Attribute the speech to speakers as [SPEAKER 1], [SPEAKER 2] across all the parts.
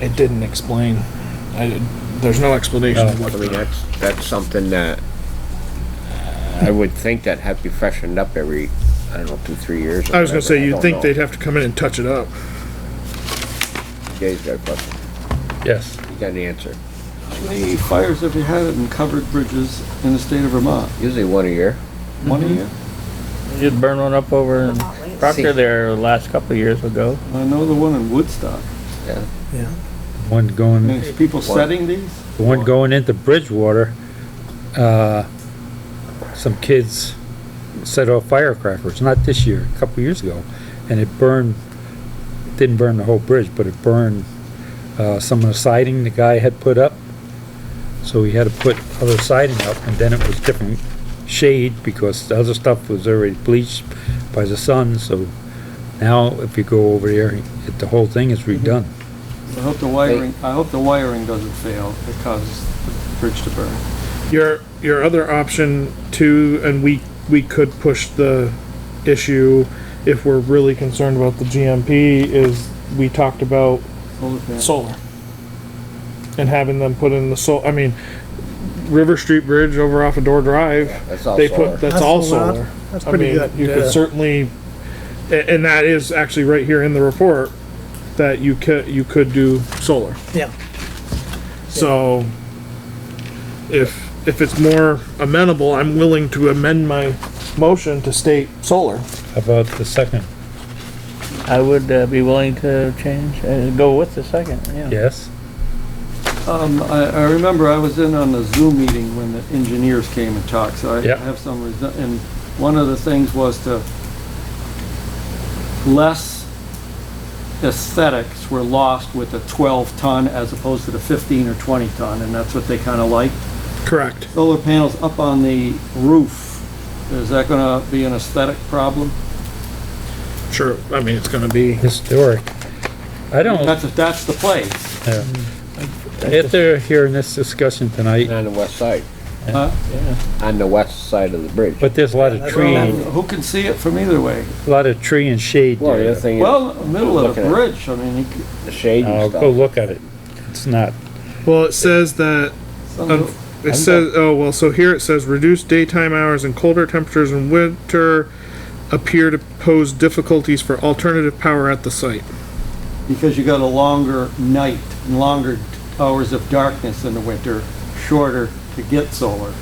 [SPEAKER 1] It didn't explain. I, there's no explanation of what
[SPEAKER 2] I mean,
[SPEAKER 1] the,
[SPEAKER 2] that's, that's something that I would think that have to be freshened up every, I don't know, two, three years. or
[SPEAKER 1] I was gonna
[SPEAKER 2] whatever.
[SPEAKER 1] say, you'd
[SPEAKER 2] don't
[SPEAKER 1] think
[SPEAKER 2] know.
[SPEAKER 1] they'd have to come in and touch it up.
[SPEAKER 2] Jay's got a question.
[SPEAKER 3] Yes.
[SPEAKER 2] He got an answer.
[SPEAKER 4] How many fires have you had in covered bridges in the state of Vermont?
[SPEAKER 2] Usually one a year.
[SPEAKER 4] One a year?
[SPEAKER 3] You'd burn one up over in Proctor there last couple of years ago.
[SPEAKER 4] I know the one in Woodstock.
[SPEAKER 5] One
[SPEAKER 4] I
[SPEAKER 5] going,
[SPEAKER 4] mean, is people setting these?
[SPEAKER 5] the one going into Bridgewater, uh, some kids set off firecrackers, not this year, a couple years ago, and it burned, it didn't burn the whole bridge, but it burned, uh, some of the siding the guy had put up. So he had to put other siding up, and then it was different shade, because the other stuff was already bleached by the sun, so now if you go over there, it- the whole thing is redone.
[SPEAKER 4] I hope the wiring, I hope the wiring doesn't fail that causes the bridge to burn.
[SPEAKER 1] Your, your other option too, and we, we could push the issue if we're really concerned about the GMP, is we talked about
[SPEAKER 4] Hold it down.
[SPEAKER 1] solar. And having them put in the sol, I mean, River Street Bridge over off of Door Drive,
[SPEAKER 2] That's all
[SPEAKER 1] they put,
[SPEAKER 2] solar.
[SPEAKER 1] that's all
[SPEAKER 6] That's allowed.
[SPEAKER 1] solar.
[SPEAKER 6] That's
[SPEAKER 1] I
[SPEAKER 6] pretty
[SPEAKER 1] mean,
[SPEAKER 6] good.
[SPEAKER 1] You could certainly, a- and that is actually right here in the report, that you could, you could do solar.
[SPEAKER 6] Yeah.
[SPEAKER 1] So if, if it's more amenable, I'm willing to amend my motion to state solar.
[SPEAKER 5] How about the second?
[SPEAKER 3] I would uh, be willing to change, uh, go with the second, yeah.
[SPEAKER 5] Yes?
[SPEAKER 4] Um, I, I remember I was in on the Zoom meeting when the engineers came and talked, so I
[SPEAKER 5] Yeah.
[SPEAKER 4] have some, resi- and one of the things was to less aesthetics were lost with the twelve ton as opposed to the fifteen or twenty ton, and that's what they kinda liked.
[SPEAKER 1] Correct.
[SPEAKER 4] Solar panels up on the roof, is that gonna be an aesthetic problem?
[SPEAKER 1] Sure, I mean, it's gonna be.
[SPEAKER 5] Historic. I don't,
[SPEAKER 4] That's, that's the place.
[SPEAKER 5] after hearing this discussion tonight,
[SPEAKER 2] On the west side,
[SPEAKER 4] huh?
[SPEAKER 2] on the west side of the bridge.
[SPEAKER 5] but there's a lot of tree,
[SPEAKER 4] Well,
[SPEAKER 5] a
[SPEAKER 4] Who can see it from either way?
[SPEAKER 5] lot of tree and shade
[SPEAKER 2] Well, the
[SPEAKER 5] there.
[SPEAKER 2] other thing is
[SPEAKER 4] Well, middle of the
[SPEAKER 2] Looking at
[SPEAKER 4] bridge, I mean, you c-
[SPEAKER 2] the shade
[SPEAKER 5] I'll
[SPEAKER 2] and
[SPEAKER 5] go
[SPEAKER 2] stuff.
[SPEAKER 5] look at it. It's not,
[SPEAKER 1] Well, it says that
[SPEAKER 4] some
[SPEAKER 1] Um, It says, oh, well, so here it says reduced daytime hours and colder temperatures in winter appear to pose difficulties for alternative power at the site.
[SPEAKER 4] because you got a longer night, and longer hours of darkness in the winter, shorter to get solar.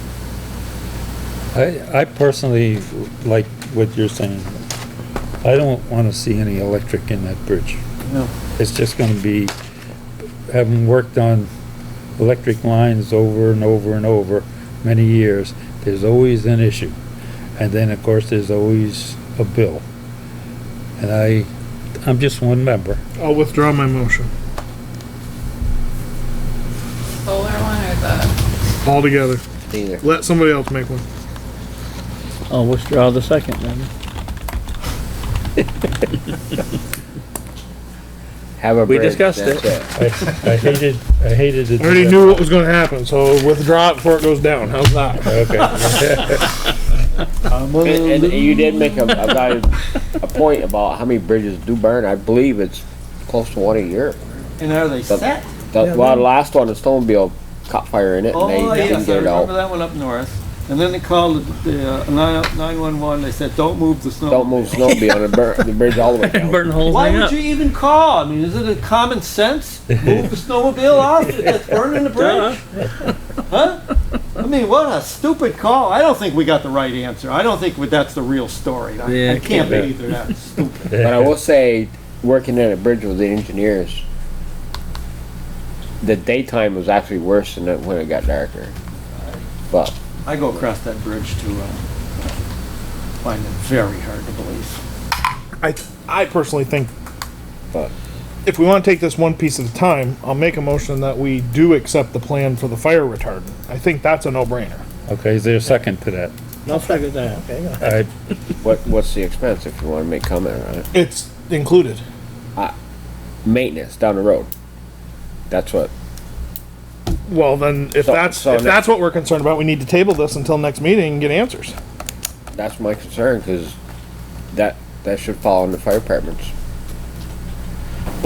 [SPEAKER 5] I, I personally like what you're saying. I don't wanna see any electric in that bridge.
[SPEAKER 4] No.
[SPEAKER 5] It's just gonna be, having worked on electric lines over and over and over many years, there's always an issue. And then, of course, there's always a bill. And I, I'm just one member.
[SPEAKER 1] I'll withdraw my motion
[SPEAKER 7] solar one or the,
[SPEAKER 1] altogether.
[SPEAKER 2] Either.
[SPEAKER 1] Let somebody else make one.
[SPEAKER 3] I'll withdraw the second then.
[SPEAKER 2] Have a
[SPEAKER 3] We
[SPEAKER 2] bridge.
[SPEAKER 3] discussed
[SPEAKER 2] that's
[SPEAKER 3] it.
[SPEAKER 5] I, I hated, I hated it.
[SPEAKER 1] I already knew what was gonna happen, so withdraw it before it goes down. How's that?
[SPEAKER 5] Okay.
[SPEAKER 2] And, and you did make a, a valid- a point about how many bridges do burn. I believe it's close to one a year.
[SPEAKER 4] And are they
[SPEAKER 2] But-
[SPEAKER 4] set?
[SPEAKER 2] The, well, the last one, the snowmobile caught fire in it and
[SPEAKER 4] Oh,
[SPEAKER 2] they didn't
[SPEAKER 4] yes, I
[SPEAKER 2] get it
[SPEAKER 4] remember
[SPEAKER 2] out.
[SPEAKER 4] that one up north. And then they called uh, the nine-one-one, they said, don't move the snow.
[SPEAKER 2] Don't move snowmobile and it burn, the bridge all the way down.
[SPEAKER 3] Burn the whole
[SPEAKER 4] Why
[SPEAKER 3] thing
[SPEAKER 4] would
[SPEAKER 3] up.
[SPEAKER 4] you even call? I mean, is it a common sense? Move the snowmobile off, it's burning the bridge. Huh? I mean, what a stupid call. I don't think we got the right answer. I don't think that's the real story. I- I can't believe they're that stupid.
[SPEAKER 2] But I will say, working at a bridge with the engineers, the daytime was actually worse than it when it got darker. But
[SPEAKER 4] I go across that bridge to, uh, find it very hard to believe.
[SPEAKER 1] I, I personally think
[SPEAKER 2] But-
[SPEAKER 1] if we wanna take this one piece at a time, I'll make a motion that we do accept the plan for the fire retardant. I think that's a no-brainer.
[SPEAKER 5] Okay, is there a second to that?
[SPEAKER 6] No flag is there, okay? go ahead.
[SPEAKER 5] I,
[SPEAKER 2] what, what's the expense if you wanna make comment on it?
[SPEAKER 1] It's included.
[SPEAKER 2] Maintenance down the road. That's what,
[SPEAKER 1] Well, then, if
[SPEAKER 2] So-
[SPEAKER 1] that's,
[SPEAKER 2] so
[SPEAKER 1] if
[SPEAKER 2] ne-
[SPEAKER 1] that's what we're concerned about, we need to table this until next meeting and get answers.
[SPEAKER 2] that's my concern, cause that, that should fall on the fire departments.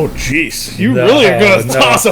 [SPEAKER 1] Oh, jeez. You
[SPEAKER 5] No,
[SPEAKER 1] really are going to
[SPEAKER 5] no.
[SPEAKER 1] toss